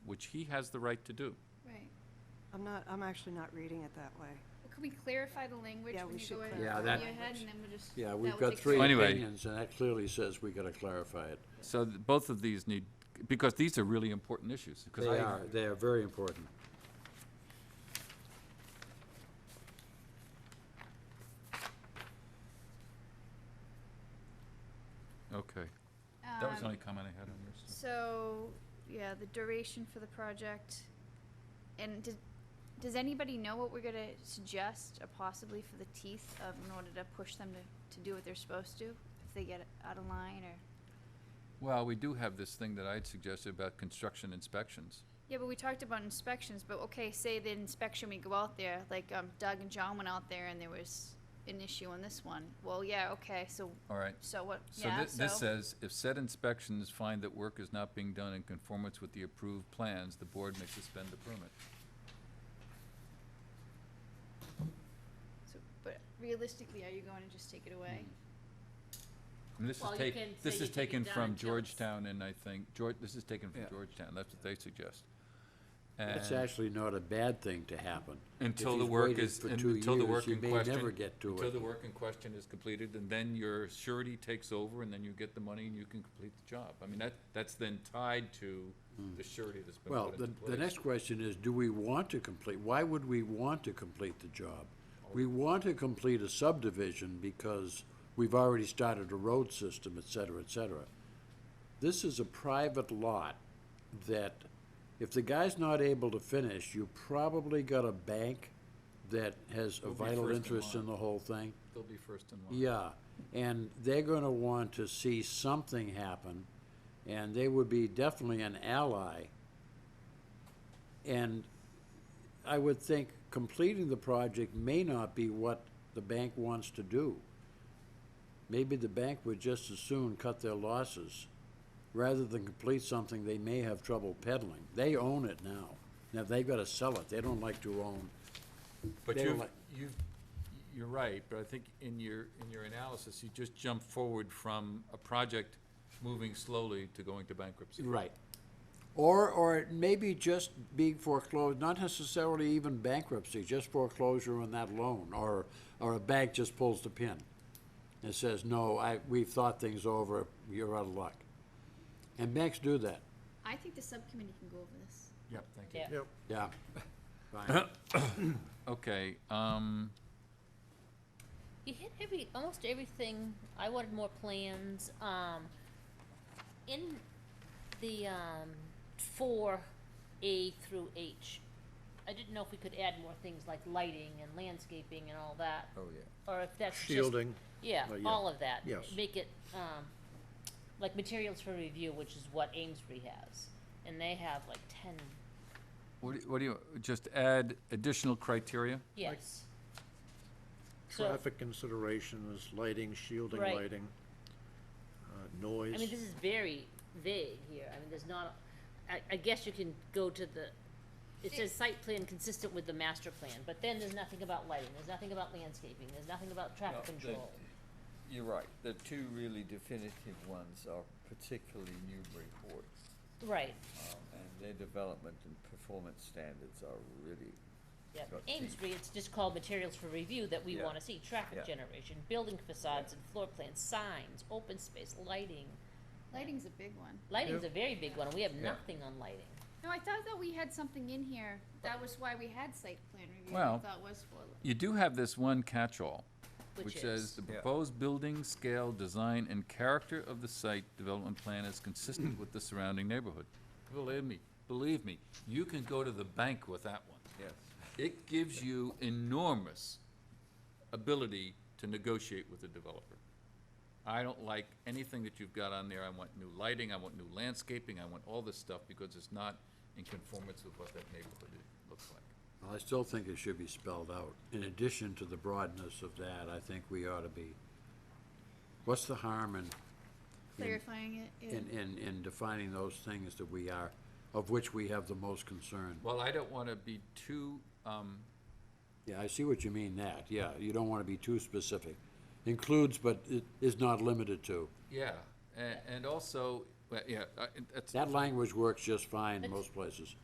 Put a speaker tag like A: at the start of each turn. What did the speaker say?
A: which he has the right to do.
B: Right.
C: I'm not, I'm actually not reading it that way.
B: Well, Could we clarify the language
C: Yeah,
B: when
C: we
B: you
C: should
B: go ahead
C: clarify
D: Yeah,
B: and
D: that-
B: review ahead, and then we'll just.
D: Yeah,
B: that
D: we've
B: will
D: got
B: take
D: three
B: care of it.
A: Anyway.
D: opinions, and that clearly says we gotta clarify it.
A: So th- both of these need, because these are really important issues. 'cause
D: They
A: I-
D: are, they are very important.
A: Okay. That was the
B: Um,
A: only comment I had on yours. so.
B: So, yeah, the duration for the project, and did, does anybody know what we're gonna suggest, or possibly for the teeth of, in order to push them to, to do what they're supposed to? If they get out of line, or,
A: Well, we do have this thing that I'd suggested about construction inspections.
B: yeah, but we talked about inspections, but okay, say the inspection, we go out there, like, um, Doug and John went out there and there was an issue on this one, well, yeah, okay, so,
A: All right.
B: so what,
A: So
B: yeah,
A: thi-
B: so.
A: this says, if said inspections find that work is not being done in conformance with the approved plans, the board may suspend the permit.
B: so- But realistically, are you going to just take it away?
A: Mm. And this is
E: Well, you
A: take,
E: can say
A: this
E: you
A: is
E: think
A: taken
E: it's done
A: from
E: until it's-
A: Georgetown and I think, George, this is taken from
D: Yeah.
A: Georgetown, that's what they suggest.
D: That's
A: And-
D: actually not a bad thing to happen. If
A: Until the
D: he's
A: work
D: waited
A: is,
D: for two
A: until the
D: years,
A: work
D: he
A: in
D: may
A: question.
D: never get to
A: Until
D: it.
A: the work in question is completed, and then your surety takes over, and then you get the money and you can complete the job. I mean, that, that's then tied to the surety that's been
D: Hmm. Well,
A: put
D: the,
A: into place.
D: the next question is, do we want to complete, why would we want to complete the job? We want to complete a subdivision because we've already started a road system, et cetera, et cetera. This is a private lot that if the guy's not able to finish, you probably got a bank that has a
A: Will be
D: vital
A: first in
D: interest in
A: line.
D: the whole thing.
A: They'll be first in line.
D: Yeah, and they're gonna want to see something happen, and they would be definitely an ally. And I would think completing the project may not be what the bank wants to do. Maybe the bank would just as soon cut their losses, rather than complete something they may have trouble peddling. They own it now. Now, they've gotta sell it, they don't like to own.
A: But
D: They were
A: you've,
D: like-
A: you've, you're right, but I think in your, in your analysis, you just jumped forward from a project moving slowly to going to bankruptcy.
D: Right. Or, or maybe just being foreclosed, not necessarily even bankruptcy, just foreclosure on that loan, or, or a bank just pulls the pin and says, no, I, we've thought things over, you're out of luck. And banks do that,
B: I think the subcommittee can go over this.
A: Yep, thank you.
E: Yeah.
D: yeah. Fine.
A: Okay, um,
E: You hit every, almost everything, I wanted more plans, um, in the, um, four A through H. I didn't know if we could add more things like lighting and landscaping and all that,
D: Oh, yeah.
E: or if that's just.
F: Shielding.
E: Yeah,
D: Oh, yeah.
E: all of that.
F: Yes.
E: Make it, um, like materials for review, which is what Amesbury has, and they have like ten,
A: what, do- what do you, just add additional criteria?
E: yes. So-
F: Traffic considerations, lighting, shielding
E: Right.
F: lighting, uh,
E: I mean,
F: noise.
E: this is very vague here, I mean, there's not, I, I guess you can go to the, it says site plan consistent with the master plan, but then there's nothing about lighting, there's nothing about landscaping, there's nothing about traffic
G: No, the-
E: control.
G: You're right, the two really definitive ones are particularly Newburyport,
E: Right,
G: um, and their development and performance standards are really,
E: yeah,
G: Got the-
E: Amesbury, it's just called materials for review that we
G: Yeah.
E: wanna see, traffic
G: Yeah.
E: generation, building facades and floor plans, signs, open space, lighting.
B: Lighting's a big one.
E: Lighting's a very big one, and we have
G: Yeah.
E: nothing on lighting.
B: No, I thought that we had something in here. That was why we had site plan review.
A: Well-
B: I thought was for.
A: You do have this one catch-all,
E: Which
A: which says,
E: is?
A: "The
G: Yeah.
A: proposed building, scale, design, and character of the site development plan is consistent with the surrounding neighborhood." Believe me, believe me, you can go to the bank with that one.
G: yes.
A: It gives you enormous ability to negotiate with the developer. I don't like anything that you've got on there. I want new lighting, I want new landscaping, I want all this stuff because it's not in conformance with what that neighborhood i- looks like.
D: Well, I still think it should be spelled out. In addition to the broadness of that, I think we ought to be, what's the harm in
B: Clarifying it. yeah.
D: in, in, in defining those things that we are, of which we have the most concern.
A: Well, I don't want to be too, um,
D: Yeah, I see what you mean that, yeah, you don't wanna be too specific. Includes but i- is not limited to.
A: yeah, and, and also, well, yeah, I- that's.
D: That language works just fine in
E: It's-
D: most places.